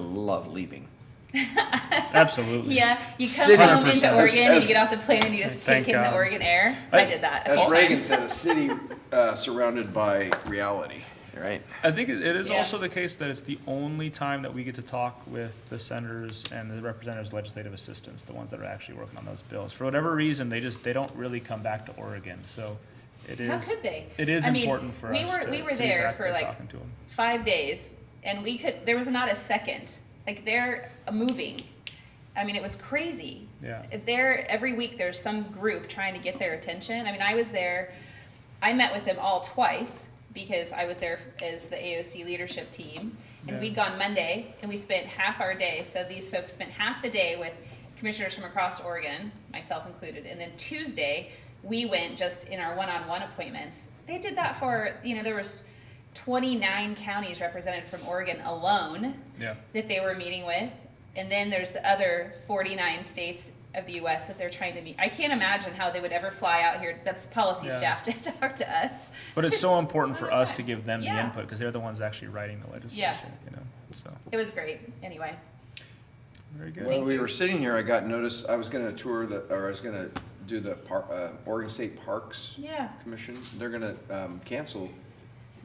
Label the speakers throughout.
Speaker 1: love leaving.
Speaker 2: Absolutely.
Speaker 3: Yeah, you come
Speaker 1: City-
Speaker 3: home into
Speaker 2: 100%.
Speaker 3: Oregon and
Speaker 1: As-
Speaker 3: you get off the plane and you just
Speaker 2: Thank
Speaker 3: take in the
Speaker 2: God.
Speaker 3: Oregon air. I
Speaker 2: As-
Speaker 3: did that. a
Speaker 1: As
Speaker 3: few
Speaker 1: Reagan
Speaker 3: times.
Speaker 1: said, a city uh, surrounded by reality. Right.
Speaker 2: I think it it is
Speaker 3: Yeah.
Speaker 2: also the case that it's the only time that we get to talk with the senators and the representatives' legislative assistants, the ones that are actually working on those bills. For whatever reason, they just, they don't really come back to Oregon, so it is.
Speaker 3: How could they?
Speaker 2: It is
Speaker 3: I mean,
Speaker 2: important for
Speaker 3: we
Speaker 2: us
Speaker 3: were-
Speaker 2: to,
Speaker 3: we were
Speaker 2: to be
Speaker 3: there
Speaker 2: back
Speaker 3: for,
Speaker 2: there
Speaker 3: like,
Speaker 2: talking to them.
Speaker 3: five days and we could there was not a second like they're moving i mean it was crazy
Speaker 2: Yeah.
Speaker 3: there every week there's some group trying to get their attention i mean i was there i met with them all twice because i was there as the aoc leadership team and
Speaker 2: Yeah.
Speaker 3: we'd gone monday and we spent half our day so these folks spent half the day with commissioners from across oregon myself included and then tuesday we went just in our one-on-one appointments they did that for you know there was 29 counties represented from Oregon alone
Speaker 2: Yeah.
Speaker 3: that they were meeting with. And then there's the other 49 states of the US that they're trying to meet. I can't imagine how they would ever fly out here, the policy
Speaker 2: Yeah.
Speaker 3: staff, to talk to us.
Speaker 2: But it's so important for
Speaker 3: All the
Speaker 2: us to
Speaker 3: time.
Speaker 2: give them the
Speaker 3: Yeah.
Speaker 2: input, because they're the ones actually writing the legislation, you know, so,
Speaker 3: It was great. Anyway,
Speaker 2: very good.
Speaker 1: While
Speaker 3: Thank
Speaker 1: we
Speaker 3: you.
Speaker 1: were sitting here, I got notice, I was gonna tour the, or I was gonna do the par, uh, Oregon State Parks
Speaker 3: yeah.
Speaker 1: Commission. They're gonna, um, cancel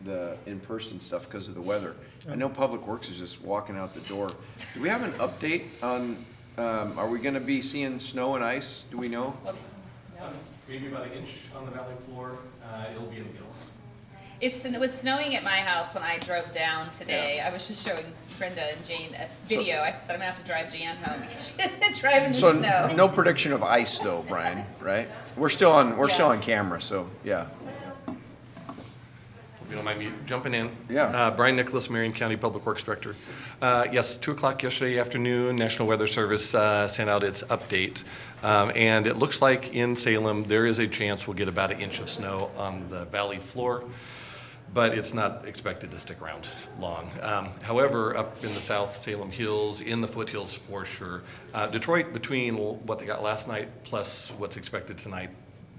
Speaker 1: the in-person stuff because of the weather. I know Public Works is just walking out the door. Do we have an update on, um, are we gonna be seeing snow and ice? Do we know?
Speaker 3: What's, no.
Speaker 4: Maybe about an inch on the valley floor, uh, it'll be in the hills.
Speaker 3: It's, it was snowing at my house when I drove down today. I was just showing Brenda and Jane a
Speaker 1: So-
Speaker 3: video. I said I'm gonna have to drive Jan home because she isn't driving in the
Speaker 1: So,
Speaker 3: snow.
Speaker 1: n- no prediction of ice though, Brian, right? We're still on, we're still
Speaker 3: Yeah.
Speaker 1: on camera, so, yeah.
Speaker 4: If you don't mind me jumping in.
Speaker 1: Yeah.
Speaker 4: Uh, Brian Nicholas, Marion County Public Works Director. Uh, Yes, 2 o'clock yesterday afternoon, National Weather Service uh, sent out its update. Um, And it looks like in Salem, there is a chance we'll get about an inch of snow on the valley floor, but it's not expected to stick around long. Um, However, up in the south Salem Hills, in the foothills for sure. Uh, Detroit, between l- what they got last night plus what's expected tonight,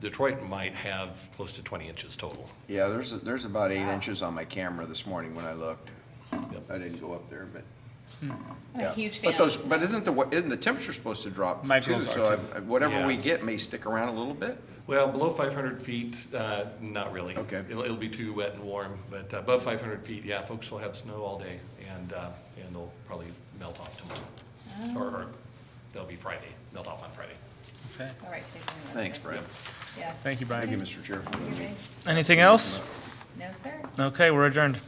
Speaker 4: Detroit might have close to 20 inches total.
Speaker 1: Yeah, there's, there's about eight inches on my camera this morning when I looked.
Speaker 4: Yep.
Speaker 1: I didn't go up there, but.
Speaker 3: I'm
Speaker 1: yeah.
Speaker 3: a huge fan.
Speaker 1: But
Speaker 3: of
Speaker 1: those,
Speaker 3: snow.
Speaker 1: but isn't the, isn't the temperature's supposed to drop
Speaker 2: My
Speaker 1: too?
Speaker 2: girls are
Speaker 1: So
Speaker 2: too.
Speaker 1: I- I- whatever we
Speaker 4: Yeah.
Speaker 1: get may stick around a little bit?
Speaker 4: Well, below 500 feet, uh, not really.
Speaker 1: Okay.
Speaker 4: It'll, it'll be too wet and warm, but uh, above 500 feet, yeah, folks will have snow all day, and, uh, and they'll probably melt off tomorrow. Or, or they'll be Friday, melt off on Friday.
Speaker 2: Okay.
Speaker 3: All right, today's another
Speaker 1: Thanks,
Speaker 3: day.
Speaker 1: Brian.
Speaker 3: Yeah.
Speaker 2: Thank you,
Speaker 1: Thank you,
Speaker 2: Brian.
Speaker 1: Mr. Chair.
Speaker 3: You're good.
Speaker 2: Anything else?
Speaker 3: No, sir.
Speaker 2: Okay, we're adjourned.